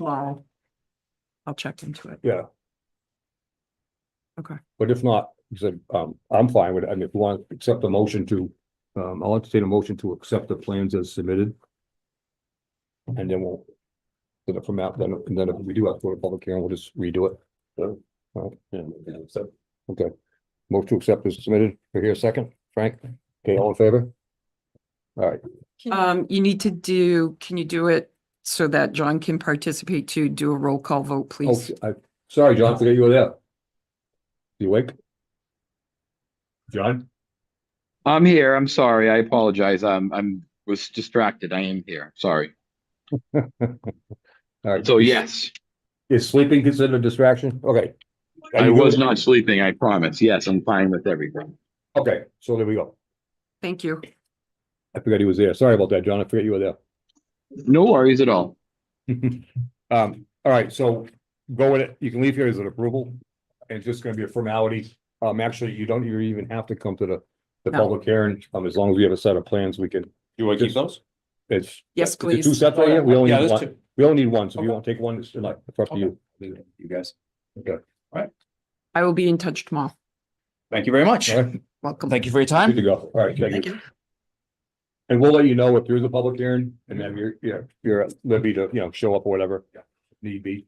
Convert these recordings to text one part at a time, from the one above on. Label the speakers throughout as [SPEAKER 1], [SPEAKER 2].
[SPEAKER 1] tomorrow. I'll check into it.
[SPEAKER 2] Yeah.
[SPEAKER 1] Okay.
[SPEAKER 2] But if not, he said, um, I'm fine with it. I mean, if you want, to accept the motion to, um, I'll entertain a motion to accept the plans as submitted. And then we'll, then from that, then, and then if we do have to go to public hearing, we'll just redo it. So, all right.
[SPEAKER 3] So,
[SPEAKER 2] Okay. Motion to accept is submitted. We're here a second. Frank? Okay, all in favor? All right,
[SPEAKER 4] Mm-hmm.
[SPEAKER 1] Um, you need to do, can you do it so that John can participate to do a roll call vote,
[SPEAKER 2] oh,
[SPEAKER 1] please?
[SPEAKER 2] I, sorry, John, forget you were there. You awake? John?
[SPEAKER 5] I'm here. I'm sorry. I apologize. I'm I'm was distracted. I am here. Sorry.
[SPEAKER 2] All right,
[SPEAKER 5] So yes,
[SPEAKER 2] is sleeping considered a distraction? Okay. Are
[SPEAKER 5] I
[SPEAKER 2] you
[SPEAKER 5] was
[SPEAKER 2] good?
[SPEAKER 5] not sleeping. I promise. Yes, I'm fine with everything.
[SPEAKER 2] Okay, so there we go.
[SPEAKER 1] Thank you.
[SPEAKER 2] I forgot he was there. Sorry about that, John. I forgot you were there.
[SPEAKER 5] No worries at all.
[SPEAKER 2] Um, all right, so go with it. You can leave here as an approval. It's just gonna be a formality. Um, actually, you don't even have to come to the, the
[SPEAKER 1] No.
[SPEAKER 2] public hearing. Um, as long as we have a set of plans, we can,
[SPEAKER 3] You want to keep those?
[SPEAKER 2] it's.
[SPEAKER 1] Yes,
[SPEAKER 2] the Two
[SPEAKER 1] please.
[SPEAKER 2] sets right here. We only
[SPEAKER 3] Yeah,
[SPEAKER 2] need
[SPEAKER 3] there's
[SPEAKER 2] one.
[SPEAKER 3] two.
[SPEAKER 2] We only need one. So if you
[SPEAKER 3] Okay.
[SPEAKER 2] want to take one, it's like, it's up to you.
[SPEAKER 3] You guys,
[SPEAKER 1] I will be in touch tomorrow.
[SPEAKER 3] thank you very much.
[SPEAKER 2] All right,
[SPEAKER 1] Welcome.
[SPEAKER 3] Thank you for your
[SPEAKER 2] good to
[SPEAKER 3] time.
[SPEAKER 2] go. All right, thank you. And we'll let you know if there is a public hearing and then you're, you're, you're at liberty to, you know, show up or whatever. Need be.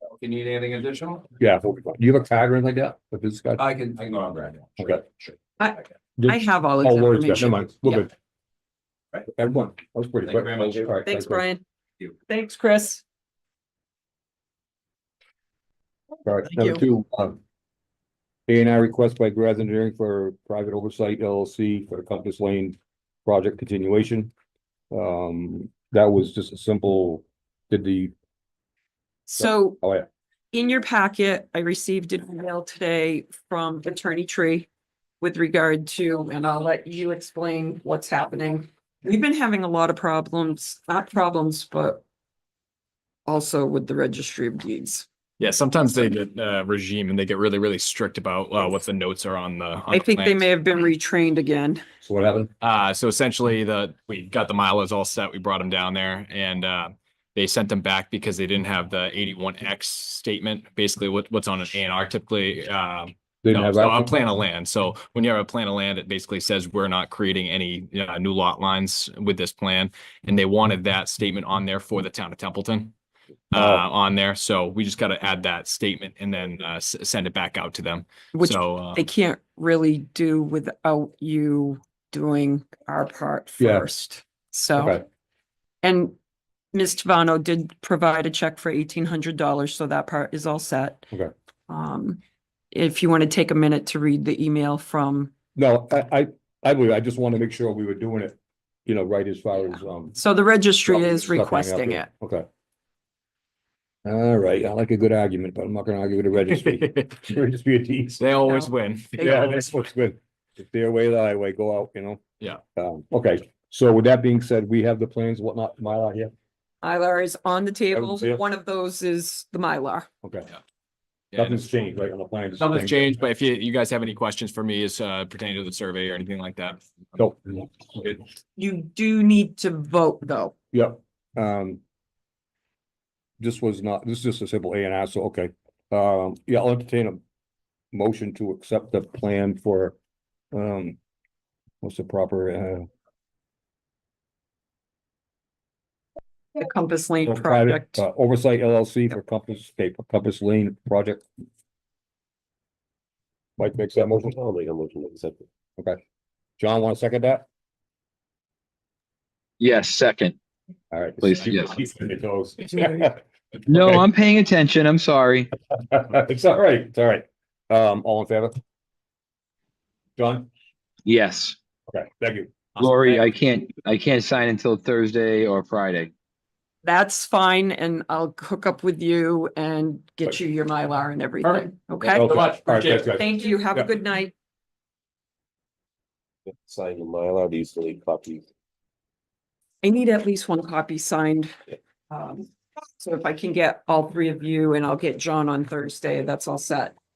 [SPEAKER 3] If you need anything additional,
[SPEAKER 2] Yeah. we'll be fine. Do you have a tag or anything like that? If it's got.
[SPEAKER 3] I can, I can go on Brad.
[SPEAKER 2] Okay.
[SPEAKER 3] Sure.
[SPEAKER 1] I have all
[SPEAKER 2] Oh,
[SPEAKER 1] of the
[SPEAKER 2] Lori's got, never
[SPEAKER 1] information.
[SPEAKER 2] mind, we're
[SPEAKER 1] Yeah.
[SPEAKER 2] good.
[SPEAKER 3] Right.
[SPEAKER 2] Everyone, that was pretty
[SPEAKER 3] Thank you
[SPEAKER 2] quick.
[SPEAKER 3] very much.
[SPEAKER 2] All right,
[SPEAKER 1] Thanks,
[SPEAKER 2] Brian.
[SPEAKER 1] Brian.
[SPEAKER 3] you.
[SPEAKER 1] Thanks, Chris.
[SPEAKER 2] All right,
[SPEAKER 1] Thank
[SPEAKER 2] number two, um. A and I request by Graz Engineering for private oversight LLC for the Compass Lane project continuation. Um, that was just a simple, did the,
[SPEAKER 1] So
[SPEAKER 2] oh yeah,
[SPEAKER 1] in your packet, I received an email today from Attorney Tree with regard to, and I'll let you explain what's happening. We've been having a lot of problems, not problems, but also with the registry of deeds.
[SPEAKER 4] Yeah, sometimes they get uh regime and they get really, really strict about uh what the notes are on the. on
[SPEAKER 1] I
[SPEAKER 4] the
[SPEAKER 1] think they
[SPEAKER 4] plans.
[SPEAKER 1] may have been retrained again.
[SPEAKER 2] so what happened?
[SPEAKER 4] Uh, so essentially the, we got the milos all set, we brought them down there and uh. They sent them back because they didn't have the eighty-one X statement, basically what what's on an A and R typically, um.
[SPEAKER 2] Didn't
[SPEAKER 4] No,
[SPEAKER 2] have
[SPEAKER 4] so on
[SPEAKER 2] that?
[SPEAKER 4] plan of land. So when you have a plan of land, it basically says we're not creating any uh, new lot lines with this plan. And they wanted that statement on there for the town of Templeton. Uh,
[SPEAKER 2] Oh.
[SPEAKER 4] on there. So we just got to add that statement and then uh, s- send it back out to them.
[SPEAKER 1] Which
[SPEAKER 4] So, uh,
[SPEAKER 1] they can't really do without you doing our part
[SPEAKER 2] Yeah.
[SPEAKER 1] first. So,
[SPEAKER 2] Okay,
[SPEAKER 1] and Ms. Tavano did provide a check for eighteen hundred dollars, so that part is all set.
[SPEAKER 2] Okay.
[SPEAKER 1] Um, if you want to take a minute to read the email from,
[SPEAKER 2] no, I, I, I believe, I just want to make sure we were doing it, you know, right as far as, um.
[SPEAKER 1] so the registry
[SPEAKER 2] stuff
[SPEAKER 1] is
[SPEAKER 2] hanging up
[SPEAKER 1] requesting
[SPEAKER 2] here.
[SPEAKER 1] it.
[SPEAKER 2] Okay. All right, I like a good argument, but I'm not gonna argue with the registry. It'll just be a tease.
[SPEAKER 4] They always
[SPEAKER 1] No.
[SPEAKER 4] win.
[SPEAKER 1] They
[SPEAKER 2] Yeah,
[SPEAKER 1] always-
[SPEAKER 2] that's what's good. If their way, the highway, go out, you know?
[SPEAKER 4] Yeah.
[SPEAKER 2] Um, okay, so with that being said, we have the plans, whatnot, Mylar here,
[SPEAKER 1] Mylar is on the table.
[SPEAKER 2] see it.
[SPEAKER 1] One of those is the Mylar.
[SPEAKER 2] okay,
[SPEAKER 4] Yeah,
[SPEAKER 2] nothing's changed, right, on the plan.
[SPEAKER 4] Nothing's changed, but if you, you guys have any questions for me as uh, pertaining to the survey or anything like that.
[SPEAKER 2] Nope,
[SPEAKER 1] You do need to vote, though.
[SPEAKER 2] yep, um. This was not, this is just a simple A and R, so, okay, um, yeah, I'll entertain a motion to accept the plan for, um. What's the proper, uh,
[SPEAKER 1] The Compass
[SPEAKER 2] uh,
[SPEAKER 1] Lane
[SPEAKER 2] private
[SPEAKER 1] project.
[SPEAKER 2] uh, oversight LLC for Compass, okay, Compass Lane project? Mike makes that motion?
[SPEAKER 3] I'll make a motion to accept it.
[SPEAKER 2] John, want to second that?
[SPEAKER 5] Yes, second.
[SPEAKER 2] All right.
[SPEAKER 5] Please, yes.
[SPEAKER 2] Keep on your toes.
[SPEAKER 5] No,
[SPEAKER 2] Okay.
[SPEAKER 5] I'm paying attention. I'm sorry.
[SPEAKER 2] It's all right, it's all right. Um, all in favor? John?
[SPEAKER 5] Yes,
[SPEAKER 2] Okay, thank you.
[SPEAKER 5] Lori, I can't I can't sign until Thursday or Friday.
[SPEAKER 1] That's fine, and I'll hook up with you and get you your Mylar and everything, okay?
[SPEAKER 2] Okay,
[SPEAKER 3] much.
[SPEAKER 2] all right, thanks, guys.
[SPEAKER 1] Thank you, have a
[SPEAKER 2] Yeah.
[SPEAKER 1] good night.
[SPEAKER 3] Sign the Mylar, do you still need copies?
[SPEAKER 1] I need at least one copy signed. Um, So if I can get all three of you and I'll get John on Thursday, that's all set.